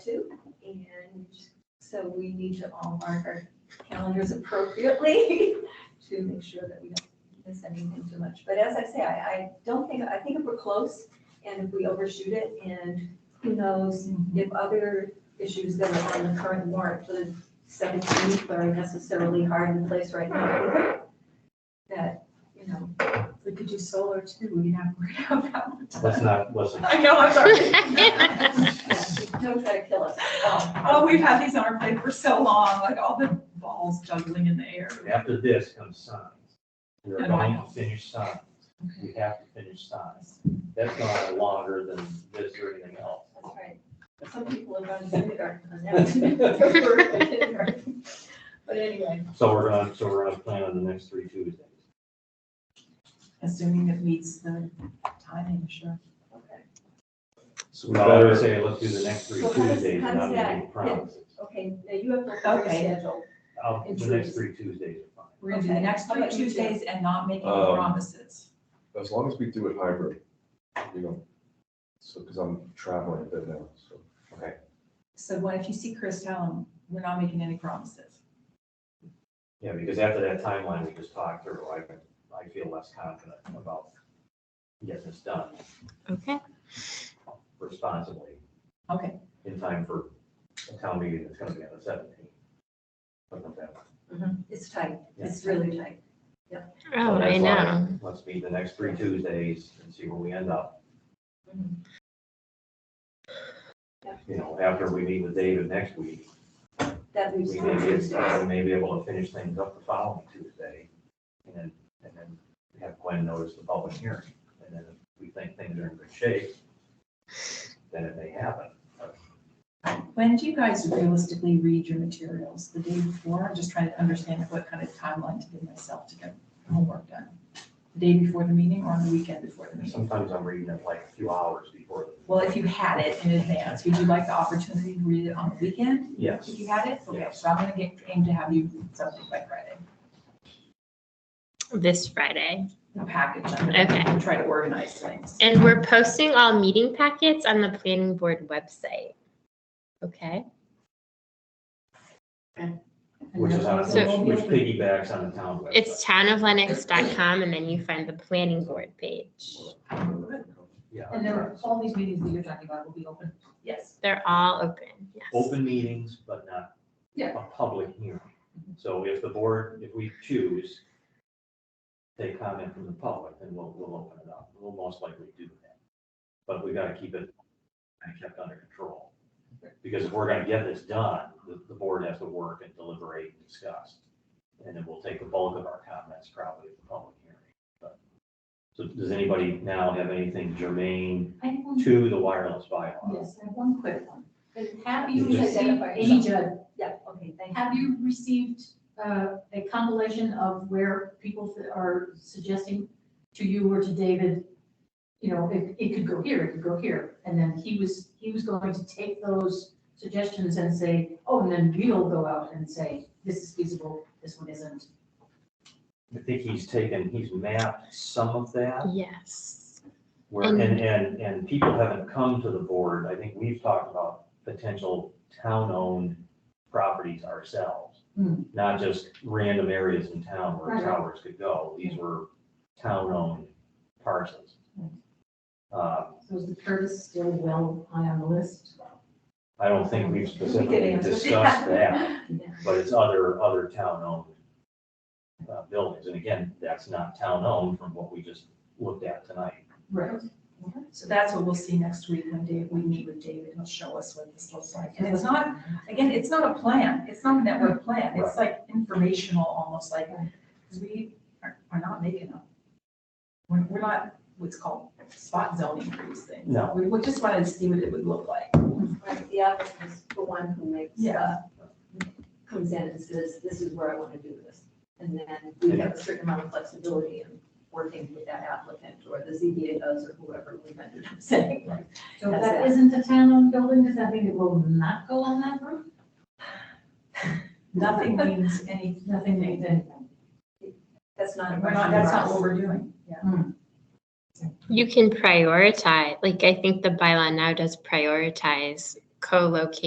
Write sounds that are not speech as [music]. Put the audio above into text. to. And so we need to all mark our calendars appropriately [laughs] to make sure that we don't miss anything too much. But as I say, I, I don't think, I think if we're close and if we overshoot it and who knows if other issues that are on the current warrant for the seventeenth are necessarily hard in place right now. That, you know, We could do solar too, we didn't have to worry about that. one. Let's not, listen. I know, I'm sorry. [laughs] yeah, don't try to kill us. Um, Oh, we've had these on our plate for so long, like all the balls juggling in the air. After this comes signs. We're Yeah. going to finish signs. We have to finish signs. That's not longer than this or anything else. That's right. But Some people have gone to kindergarten on [laughs] that. But anyway, So we're gonna, so we're gonna plan on the next three Tuesdays. Assuming it meets the timing, sure. okay, So we But I would better, say let's do the next three So how does- Tuesdays how and does not make that any fit? promises. okay, now you have the third Okay. schedule. I'll- In The next Tuesdays. three Tuesdays are fine. We're gonna do the Okay. next How three about you two? Tuesdays and not make any Um, promises. as long as we do it hybrid, you know, so, because I'm traveling a bit now, so. So what if you see Chris, tell him, we're not making any promises. Yeah, because after that timeline we just talked through, I, I feel less confident about getting this done Okay. responsibly Okay, in time for a town meeting that's gonna be on the seventeenth. Something like that. It's tight, it's really tight. Oh, So I that's know. why Let's meet the next three Tuesdays and see where we end up. Mhm. Yeah. You know, after we meet with David next week, That leaves we may be, Tuesdays. we may be able to finish things up the following Tuesday. And then, and then have Gwen notice the public hearing. And then if we think things are in good shape, then it may happen. when do you guys realistically read your materials? The day before? I'm just trying to understand what kind of timeline to give myself to get homework done. The day before the meeting or on the weekend before the meeting? Sometimes I'm reading it like a few hours before. the- Well, if you had it in advance, would you like the opportunity to read it on the weekend? Yes. If you had it, okay, so I'm gonna get, aim to have you read something by Friday, This Friday. a package, I'm gonna Okay. try to organize things. And we're posting all meeting packets on the planning board website. Okay. Which is on, So- which which piggybacks on the town website. It's townoflennox.com and then you find the planning board page. Yeah. And there, all these meetings that you're talking about will be open. Yes, They're all open. Yes. open meetings, but not Yeah. a public hearing. So if the board, if we choose, take comment from the public, then we'll, we'll open it up. We'll most likely do that. But we gotta keep it kind of kept under control. Because if we're gonna get this done, the, the board has to work and deliberate and discuss. And then we'll take the bulk of our comments probably at the public hearing. But- So does anybody now have anything germane I have one, to the wireless bylaw? yes, I have one quick one. Have You you just- received, Identify Amy Judd, Yeah, okay, thank you. have you received uh, a compilation of where people that are suggesting to you or to David, you know, it, it could go here, it could go here, and then he was, he was going to take those suggestions and say, oh, and then we'll go out and say, this is feasible, this one isn't. I think he's taken, he's mapped some of that. Yes. Where, and, And- and, and people haven't come to the board, I think we've talked about potential town-owned properties ourselves. Hmm. Not just random areas in town where Right. towers could go, these were town-owned parcels. Uh, Hmm. So is the Curtis still well high on the list? I don't think we've specifically answer that. discussed [laughs] that, Yeah. but it's other, other town-owned uh, buildings, and again, that's not town-owned from what we just looked at tonight. Right. so that's what we'll see next week when Dave, we meet with David, he'll show us what this looks like. And it's not, again, it's not a plan, it's not a network plan, it's like informational, almost like, because we are, are not making them. We're, we're not what's called spot zoning for these things. No. We, we just wanted to see what it would look like. Right, the applicant is the one who makes, uh, Yeah. comes in and says, this is where I want to do this. And then we have a certain amount of flexibility in working with that applicant, or the ZBA does, or whoever we ended up saying. So if That's that it. isn't a town-owned building, does that mean it will not go on that route? [laughs] Nothing means any, Nothing means anything. That's not a we're not, question. that's not for us. what we're doing, yeah. You can prioritize. Like I think the bylaw now does prioritize co-location.